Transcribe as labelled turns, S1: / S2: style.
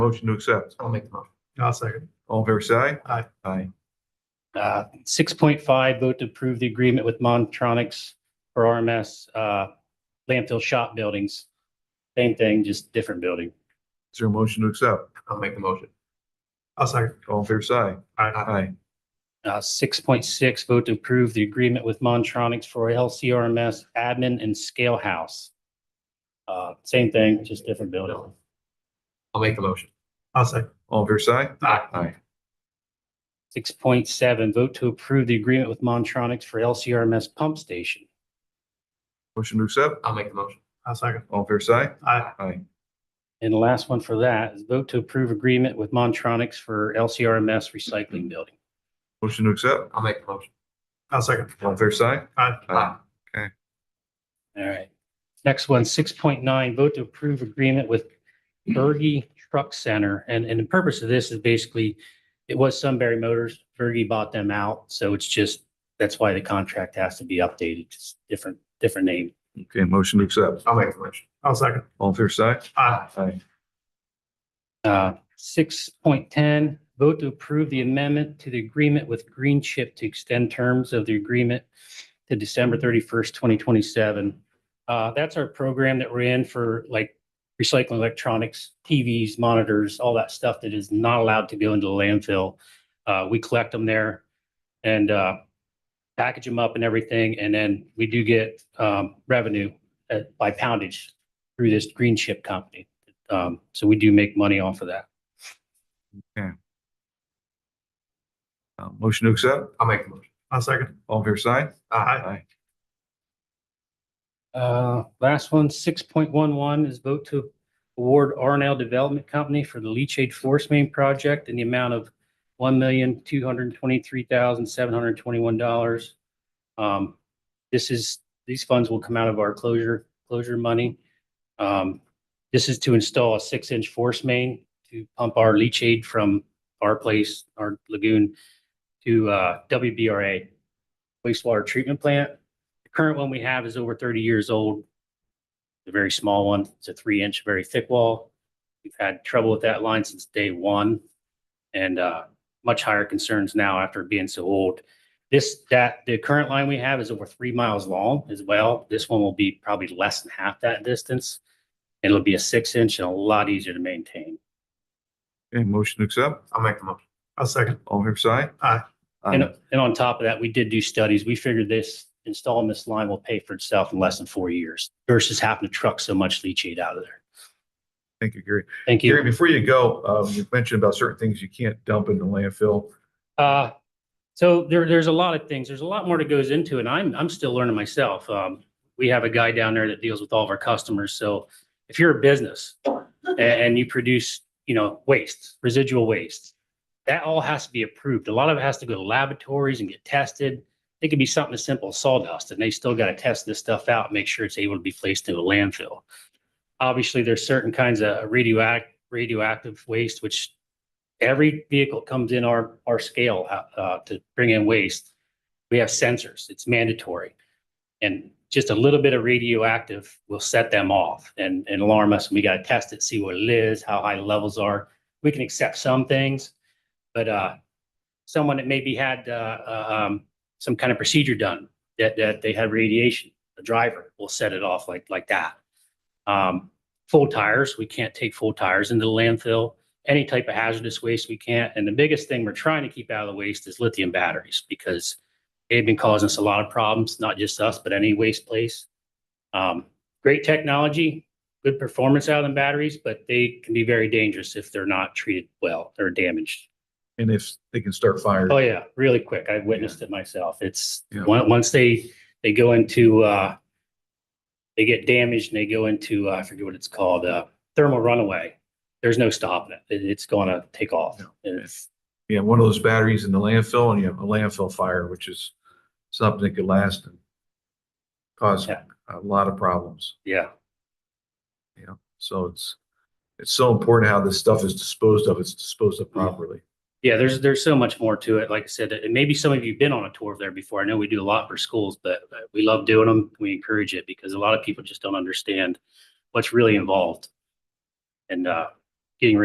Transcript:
S1: Motion to accept.
S2: I'll make the motion.
S3: I'll second.
S1: All fair side?
S3: Aye.
S1: Aye.
S4: Uh, six point five, vote to approve the agreement with Montronics for RMS, uh, landfill shop buildings. Same thing, just different building.
S1: Is there a motion to accept?
S2: I'll make the motion.
S3: I'll second.
S1: All fair side?
S3: Aye.
S1: Aye.
S4: Uh, six point six, vote to approve the agreement with Montronics for LCRMS admin and scale house. Uh, same thing, just different building.
S2: I'll make the motion.
S3: I'll second.
S1: All fair side?
S2: Aye.
S1: Aye.
S4: Six point seven, vote to approve the agreement with Montronics for LCRMS pump station.
S1: Motion to accept?
S2: I'll make the motion.
S3: I'll second.
S1: All fair side?
S3: Aye.
S1: Aye.
S4: And the last one for that is vote to approve agreement with Montronics for LCRMS recycling building.
S1: Motion to accept?
S2: I'll make the motion.
S3: I'll second.
S1: All fair side?
S3: Aye.
S1: Aye.
S4: All right. Next one, six point nine, vote to approve agreement with Bergy Truck Center. And, and the purpose of this is basically, it was Sunbury Motors, Bergy bought them out. So it's just, that's why the contract has to be updated, just different, different name.
S1: Okay, motion to accept.
S2: I'll make the motion.
S3: I'll second.
S1: All fair side?
S3: Aye.
S1: Aye.
S4: Uh, six point ten, vote to approve the amendment to the agreement with Green Chip to extend terms of the agreement to December thirty-first, twenty twenty-seven. Uh, that's our program that we're in for like recycling electronics, TVs, monitors, all that stuff that is not allowed to go into the landfill. Uh, we collect them there and, uh, package them up and everything, and then we do get, um, revenue uh, by poundage through this Green Chip company. Um, so we do make money off of that.
S1: Uh, Motion to accept?
S2: I'll make the motion.
S3: I'll second.
S1: All fair side?
S3: Aye.
S4: Uh, last one, six point one one is vote to award R and L Development Company for the leachate force main project in the amount of one million, two hundred and twenty-three thousand, seven hundred and twenty-one dollars. Um, this is, these funds will come out of our closure, closure money. Um, this is to install a six-inch force main to pump our leachate from our place, our lagoon to, uh, WBRA wastewater treatment plant. The current one we have is over thirty years old. The very small one, it's a three inch, very thick wall. We've had trouble with that line since day one. And uh, much higher concerns now after being so old. This, that, the current line we have is over three miles long as well. This one will be probably less than half that distance. It'll be a six inch and a lot easier to maintain.
S1: Okay, motion to accept?
S2: I'll make the motion.
S3: I'll second.
S1: All fair side?
S3: Aye. uh,
S1: Aye.
S4: And, and on top of that, we did do studies. We figured this, installing this line will pay for itself in less than four years versus having to truck so much leachate out of there.
S1: Thank you, Gary.
S4: Thank you.
S1: Gary, before you go, um, you mentioned about certain things you can't dump in the landfill.
S4: Uh, so there, there's a lot of things. There's a lot more that goes into it. and I'm, I'm still learning myself. Um, we have a guy down there that deals with all of our customers. So if you're a business and, and you produce, you know, waste, residual waste, that all has to be approved. A lot of it has to go to laboratories and get tested. It could be something as simple as sawdust and they still got to test this stuff out, and make sure it's able to be placed in a landfill. Obviously, there's certain kinds of radioact, radioactive waste, which every vehicle comes in our, our scale, uh, uh, to bring in waste. We have sensors, it's mandatory. And just a little bit of radioactive will set them off and, and alarm us. We gotta test it, see what it is, how high the levels are. We can accept some things, but, uh, someone that maybe had, uh, uh, um, some kind of procedure done that, that they had radiation, a driver will set it off like, like that. Um, full tires, we can't take full tires into the landfill any type of hazardous waste we can't. And the biggest thing we're trying to keep out of the waste is lithium batteries because they've been causing us a lot of problems, not just us, but any waste place. Um, great technology, good performance out of the batteries, but they can be very dangerous if they're not treated well or damaged.
S1: And if they can start fires.
S4: Oh, yeah, really quick. I witnessed it myself. It's,
S1: Yeah.
S4: on- once they, they go into, uh, they get damaged and they go into, uh, I forget what it's called, uh, thermal runaway. There's no stopping it. It- It's gonna take off.
S1: Yeah.
S4: And it's-
S1: you have one of those batteries in the landfill and you have a landfill fire, which is something that could last and cause
S4: Yeah.
S1: a lot of problems.
S4: yeah.
S1: So it's, it's so important how this stuff is disposed of. It's disposed of properly.
S4: Yeah, there's, there's so much more to it. Like I said, and maybe some of you've been on a tour of there before. I know we do a lot for schools, but uh, we love doing them. We encourage it because a lot of people just don't understand what's really involved. And, uh,